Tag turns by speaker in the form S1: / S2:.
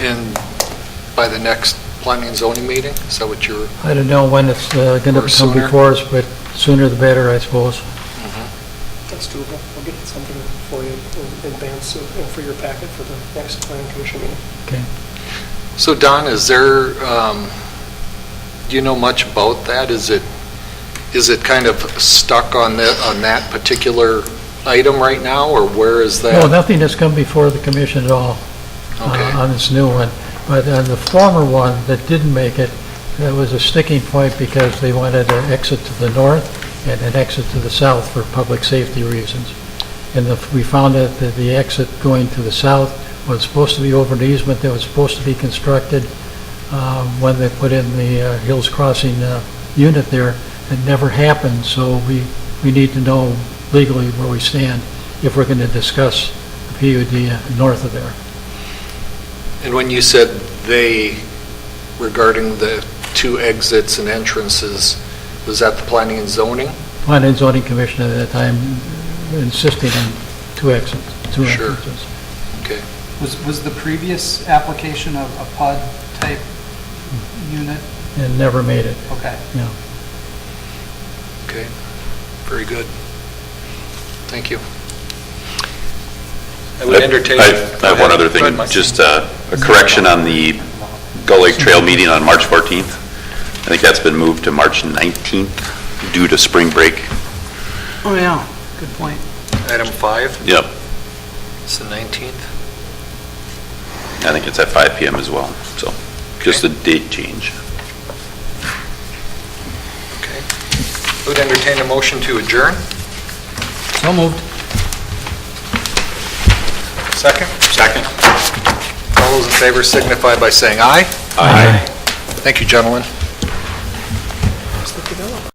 S1: by the next planning and zoning meeting? Is that what you're,
S2: I don't know when it's going
S1: Or
S2: to come
S1: sooner.
S2: before us, but sooner the better, I suppose.
S3: That's doable. We'll get something for you in advance of- and for your packet for the next planning commission meeting.
S2: Okay.
S1: so Don, is there, um, do you know much about that? Is it, is it kind of stuck on the, on that particular item right now, or where is that?
S2: No, nothing has come before the commission at all
S1: Okay.
S2: uh, on this new one. But on the former one that didn't make it, that was a sticking point because they wanted an exit to the north and an exit to the south for public safety reasons. And the- we found out that the exit going to the south was supposed to be over an easement that was supposed to be constructed uh, when they put in the uh, Hills Crossing uh, unit there. It never happened, so we, we need to know legally where we stand if we're going to discuss the PUD north of there.
S1: And when you said "they" regarding the two exits and entrances, was that the planning and zoning?
S2: Planning and zoning commission at that time insisting on two exits, two
S1: Sure.
S2: entrances.
S4: Was, was the previous application of a pod type unit?
S2: And never made it.
S4: Okay.
S1: Okay, very good. Thank you. I would entertain.
S5: I I have one other thing,
S1: Go ahead, Mike.
S5: just uh, a correction on the Gull Lake Trail meeting on March 14th. I think that's been moved to March 19th due to spring break.
S4: Oh, yeah, good point.
S1: Item five,
S5: Yep,
S1: it's the 19th.
S5: I think it's at 5 PM as well, so just a date change.
S1: Okay. I Would entertain a motion to adjourn?
S4: So moved.
S1: Second?
S5: Second.
S1: All those in favor signify by saying aye.
S5: Aye.
S1: Thank you, gentlemen.